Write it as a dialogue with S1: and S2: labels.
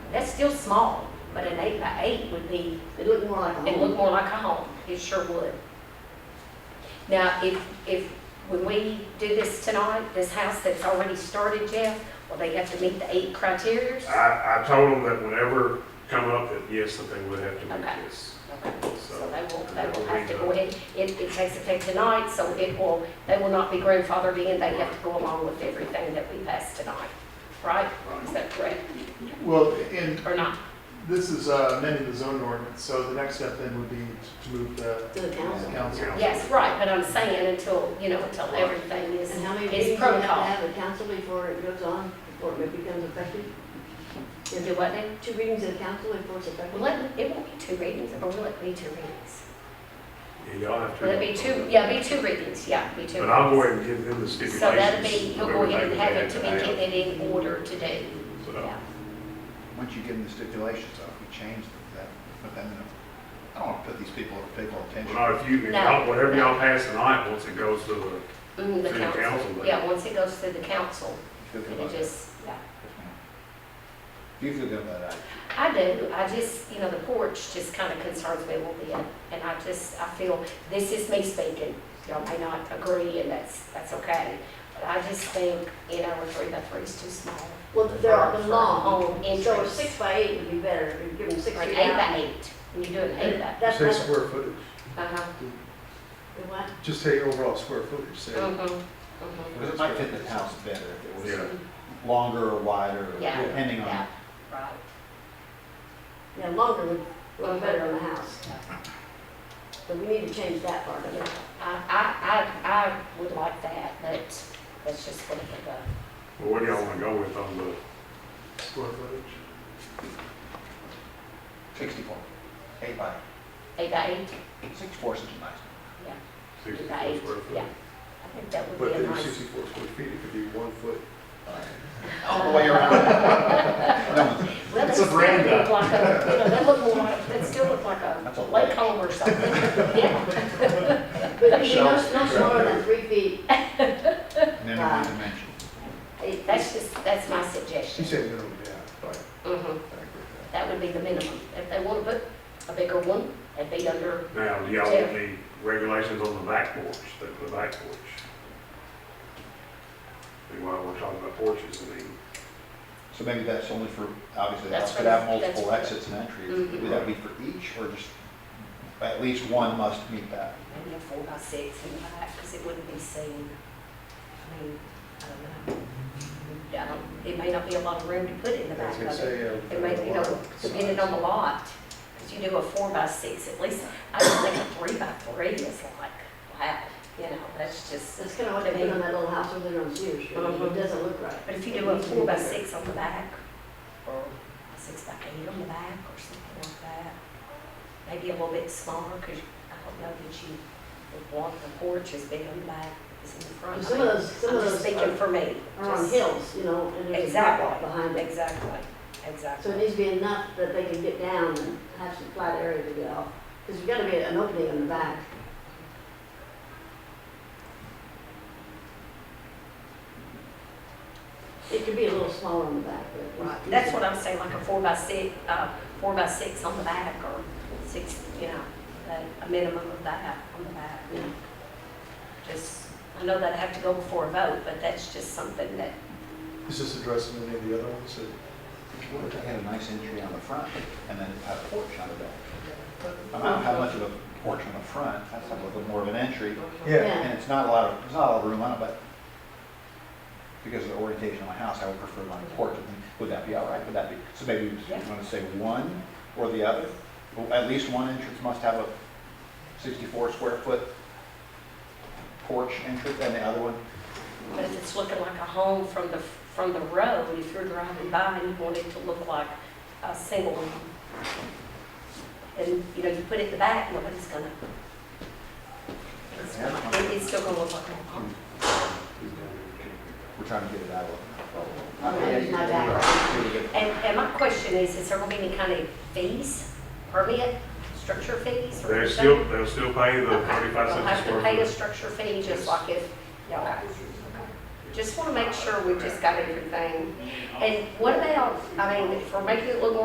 S1: That's still small, but an eight by eight would be,
S2: It looked more like a
S1: it'd look
S2: home.
S1: more like a home. It sure would. Now, if, if, when we do this tonight, this house that's already started, Jeff, will they have to meet the eight criterias?
S3: I, I told them that whenever come up, that yes, that they would have to meet
S1: Okay.
S3: this.
S1: Okay, So they will, they
S3: So,
S1: will have to
S3: that'll
S1: go
S3: be
S1: ahead, it, it takes effect tonight, so it will, they will not be grandfathered in, they have to go along with everything that we pass tonight, right? Is that correct,
S4: Well, and
S1: or not?
S4: this is uh, amending the zoning ordinance, so the next step then would be to move the
S2: To the council.
S4: council.
S1: Yes, right, but I'm saying until, you know, until everything is,
S2: And how many meetings do
S1: is
S2: you have to
S1: protocol.
S2: have a council before it goes on, before it becomes effective? Is
S1: Do
S2: it
S1: what then?
S2: two readings of council before it's effective?
S1: Will it, it won't be two readings, or will it be two readings?
S3: Yeah, Y'all have to.
S1: Will it be two, yeah, be two readings, yeah, be two.
S3: But I'll go
S1: readings.
S3: ahead and give them the stipulations.
S1: So that'll be, you'll
S3: of
S1: go ahead and
S3: everything
S1: have
S3: that
S1: it to
S3: they
S1: be
S3: have. uh,
S1: given in order today,
S3: So,
S1: yeah.
S5: Once you give them the stipulations, though, if you change that, but then, I don't want to put these people in pickle
S3: well,
S5: attention.
S3: not if you, if y'all- whatever y'all pass tonight, once it goes to the
S1: Mm, the
S3: Through the council,
S1: council,
S3: but-
S1: yeah, once it goes through the council,
S5: Feel good
S1: it'll
S5: about that.
S1: just, yeah.
S5: You feel good about that.
S1: I do, I just, you know, the porch just kind of concerns me a little bit, and I just, I feel, this is me speaking. Y'all may not agree, and that's, that's okay, but I just think, you know, a three by three is too small.
S2: Well, they're
S1: For- for
S2: long,
S1: Home
S2: so a
S1: entrance,
S2: six by eight would be better, if you give them six
S1: Oh, or an
S2: feet
S1: eight
S2: out.
S1: by eight, when you do an eight by,
S2: That's
S6: Say
S2: not-
S6: square footage,
S1: uh-huh,
S2: What?
S6: just say overall square footage, say.
S1: uh-huh,
S5: Because it might fit the house better if it
S3: Yeah.
S5: was longer or wider, or
S1: Yeah.
S5: depending
S1: yeah,
S5: on.
S1: right.
S2: Yeah, longer would look better on the house, but we need to change that part of it.
S1: I, I, I, I would like that, but that's just what it goes.
S3: well, what do y'all wanna go with on the,
S4: Square footage.
S5: Sixty-four. Eight by,
S1: Eight by eight?
S5: sixty-four is nice.
S3: sixty
S1: By eight,
S3: square foot?
S1: yeah. I think that would
S6: But
S1: be a
S6: then
S1: nice,
S6: sixty-four square feet, it could be one foot.
S5: All the way around. No one's-
S1: let us
S4: It's a
S1: still look
S4: veranda.
S1: like a, you know, that look more like, that still look like
S5: That's
S1: a
S5: a
S1: lake home or something. Yeah,
S2: But it'd be no, no smaller than three feet,
S1: Uh.
S5: Minimum dimension.
S1: It- that's just, that's my
S6: She
S1: suggestion.
S6: said minimum, yeah, right, I
S1: Mhm.
S6: agree with
S1: That would be the minimum. If they want to put a bigger one, that'd be under,
S3: Now, do y'all want the regulations on the back porch, the, the back porch? And while we're talking about porches, I mean,
S5: So maybe that's only for, obviously, the
S1: That's
S5: house
S1: for
S5: could
S1: the-
S5: have
S1: that's
S5: multiple
S1: for-
S5: exits and entries.
S1: Mhm.
S5: Would that be for each, or just, at least one must meet that?
S1: maybe a four by six in the back, because it wouldn't be seen. I mean, I don't know. I don't- It may not be a lot of room to put in the
S6: that. I was
S1: back
S6: gonna
S1: of it.
S6: say. uh,
S1: It may, you
S6: lot
S1: know,
S6: of
S1: depending on the lot, because you do a four by six, at least, I don't think a three by three is like, wow, you know, that's just.
S2: that's kind of what they put on that little house over there on Sears, Street.
S1: Mhm.
S2: it doesn't look right.
S1: But if you do a four by six on the back, or a six by eight on the back, or something like that, maybe a little bit smaller, because I don't know that you would want the porch as big on the back as in the front.
S2: And Some of those, some
S1: I'm
S2: of
S1: just
S2: those
S1: thinking
S2: are
S1: for me.
S2: are on
S1: just-
S2: hills, you know, and there's a sidewalk behind
S1: Exactly,
S2: it.
S1: exactly,
S2: So
S1: exactly.
S2: it needs to be enough that they can get down and have some flat area to get off, because there's got to be an opening in the back. It could be a little smaller in the back, but.
S1: Right, that's what I'm saying, like a four by six, uh, four by six on the back or six, you know, a- a minimum of that on the back.
S2: Yeah.
S1: Just, I know that I have to go before a vote, but that's just something that,
S4: Is this addressing any of the other ones? that-
S5: What if they had a nice entry on the front and then had a porch on the back? I don't know how much of a porch on the front, that's a little bit more of an entry,
S6: Yeah,
S5: and it's not a lot of, there's not a lot of room on it, but because of the orientation of my house, I would prefer my porch, I think, would that be all right, would that be, so maybe you
S1: Yeah.
S5: want to say one or the other? Well, At least one entrance must have a sixty-four square foot porch entrance, and the other one,
S1: but if it's looking like a home from the, from the road, if you're driving by and you want it to look like a single home. And, you know, you put it in the back, nobody's gonna. It's gonna- it- It's still gonna look like a home.
S5: we're trying to get it out of.
S2: I'm gonna use my back.
S1: And, and my question is, is there gonna be any kind of fees, permit, structure fees or
S3: they're
S1: anything?
S3: still, they'll still pay the
S1: They'll
S3: thirty-five cents a
S1: have to
S3: square
S1: pay a
S3: foot.
S1: structure fee, just like if, yeah. Just wanna make sure we just got everything. And what about, I mean, if we're making it look more